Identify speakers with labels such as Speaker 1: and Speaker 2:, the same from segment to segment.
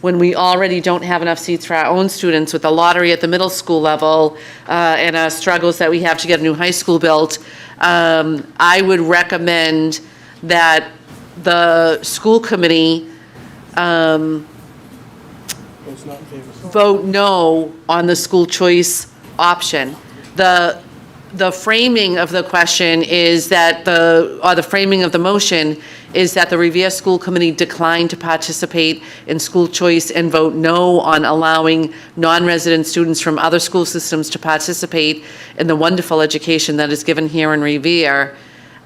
Speaker 1: when we already don't have enough seats for our own students with the lottery at the middle school level uh, and our struggles that we have to get a new high school built, um, I would recommend that the school committee
Speaker 2: It's not in favor.
Speaker 1: vote no on the school choice option. The, the framing of the question is that the, or the framing of the motion is that the Revere School Committee declined to participate in school choice and vote no on allowing non-resident students from other school systems to participate in the wonderful education that is given here in Revere.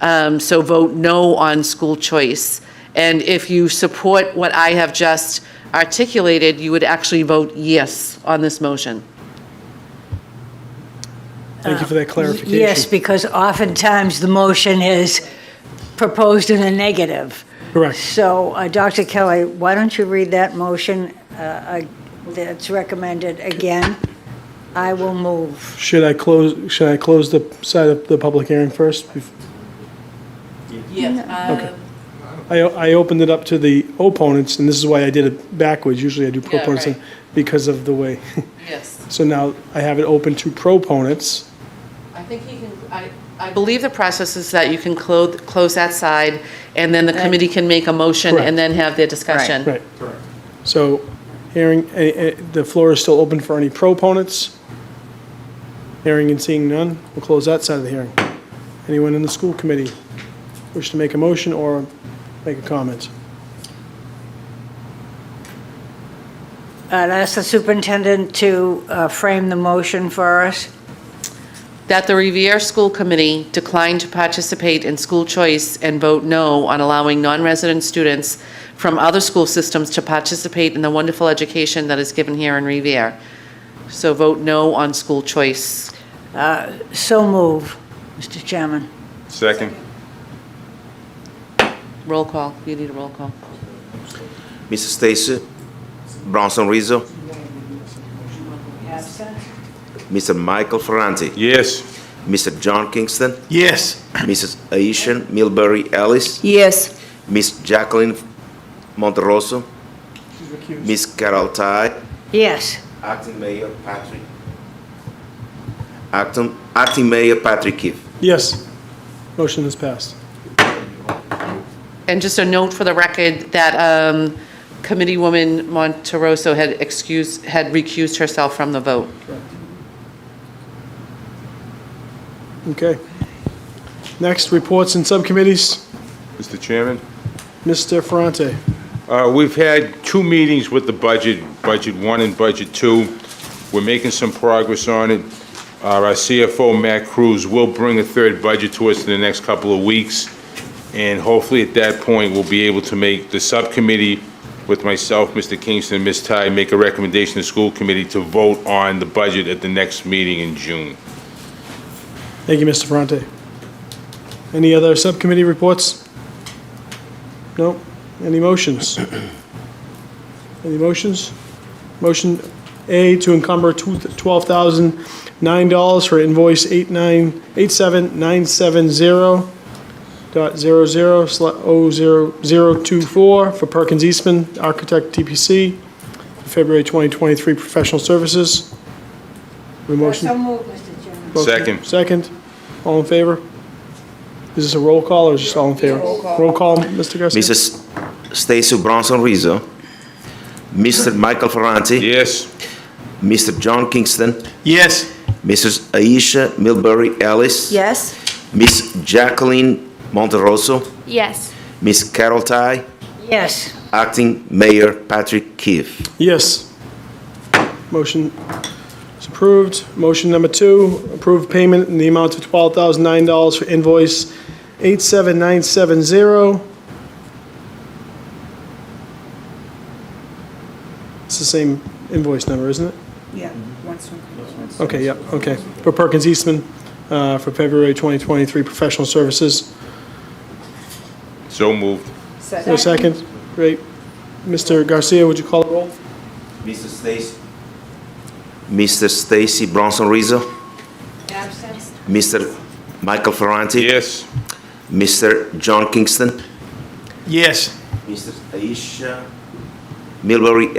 Speaker 1: Um, So vote no on school choice. And if you support what I have just articulated, you would actually vote yes on this motion.
Speaker 2: Thank you for
Speaker 1: Uh,
Speaker 2: that clarification.
Speaker 3: Yes, because oftentimes the motion is proposed in a negative.
Speaker 2: Correct.
Speaker 3: So, uh, Dr. Kelly, why don't you read that motion uh, uh, that's recommended again? I will move.
Speaker 2: Should I close, should I close the side of the public hearing first? Bef-
Speaker 1: Yes. um,
Speaker 2: I, I opened it up to the opponents, and this is why I did it backwards. Usually I do
Speaker 1: Yeah,
Speaker 2: proponents
Speaker 1: right.
Speaker 2: because of the way.
Speaker 1: Yes.
Speaker 2: So now I have it open to proponents.
Speaker 1: I think he can, I, I believe the process is that you can close, close that side, and then the committee can make a motion
Speaker 2: Correct.
Speaker 1: and then have their discussion.
Speaker 2: Right. So hearing, eh, eh, the floor is still open for any proponents. Hearing and seeing none, we'll close that side of the hearing. Anyone in the school committee wish to make a motion or make a comment?
Speaker 3: I'd ask the superintendent to uh, frame the motion for us.
Speaker 1: That the Revere School Committee declined to participate in school choice and vote no on allowing non-resident students from other school systems to participate in the wonderful education that is given here in Revere. So vote no on school choice.
Speaker 3: So move, Mr. Chairman.
Speaker 4: Second.
Speaker 1: Roll call, you need a roll call.
Speaker 5: Mrs. Stacy Bronson Rizzo, Mr. Michael Ferranti,
Speaker 4: Yes.
Speaker 5: Mr. John Kingston,
Speaker 4: Yes.
Speaker 5: Mrs. Aishan Milbury Ellis,
Speaker 6: Yes,
Speaker 5: Miss Jacqueline Monterosso, Miss Carol Ty,
Speaker 3: Yes,
Speaker 5: Acting Mayor Patrick, Acting, Acting Mayor Patrick Keefe.
Speaker 2: Yes. Motion is passed.
Speaker 1: And just a note for the record that um, Committee Woman Monteroso had excused, had recused herself from the vote.
Speaker 2: Okay. Next, reports and subcommittees.
Speaker 4: Mr. Chairman?
Speaker 2: Mr. Ferrante.
Speaker 4: Uh, We've had two meetings with the budget, Budget 1 and Budget 2. We're making some progress on it. Uh, Our CFO, Matt Cruz, will bring a third budget to us in the next couple of weeks, and hopefully at that point, we'll be able to make the subcommittee with myself, Mr. Kingston, and Ms. Ty, make a recommendation to the school committee to vote on the budget at the next meeting in June.
Speaker 2: Thank you, Mr. Ferrante. Any other subcommittee reports? No? Any motions? Any motions? Motion A to encumber two- $12,009 for invoice 89 87970 dot zero zero sla- oh zero zero two four for Perkins Eastman, architect TPC, February 2023 professional services. We motion? Motion.
Speaker 4: Second.
Speaker 2: Second. All in favor? Is this a roll call or is just all in favor? Roll call, Mr. Garcia?
Speaker 5: Mrs. Stacy Bronson Rizzo, Mr. Michael Ferranti.
Speaker 4: Yes?
Speaker 5: Mr. John Kingston,
Speaker 4: Yes.
Speaker 5: Mrs. Aisha Milbury Ellis.
Speaker 6: yes.
Speaker 5: Miss Jacqueline Monterosso,
Speaker 7: Yes.
Speaker 5: Miss Carol Ty,
Speaker 3: yes.
Speaker 5: Acting Mayor Patrick Keefe.
Speaker 2: Yes. Motion is approved. Motion number two, approve payment in the amount of $12,009 for invoice 87970. It's the same invoice number, isn't it?
Speaker 6: Yeah.
Speaker 2: Okay, yeah, okay. For Perkins Eastman, uh, for February 2023 professional services.
Speaker 4: So moved.
Speaker 2: For a second, great. Mr. Garcia, would you call the roll?
Speaker 5: Mr. Stacy. Mr. Stacy Bronson Rizzo. Mr. Michael Ferranti.
Speaker 4: Yes?
Speaker 5: Mr. John Kingston.
Speaker 2: Yes.
Speaker 5: Mrs. Aisha Millbury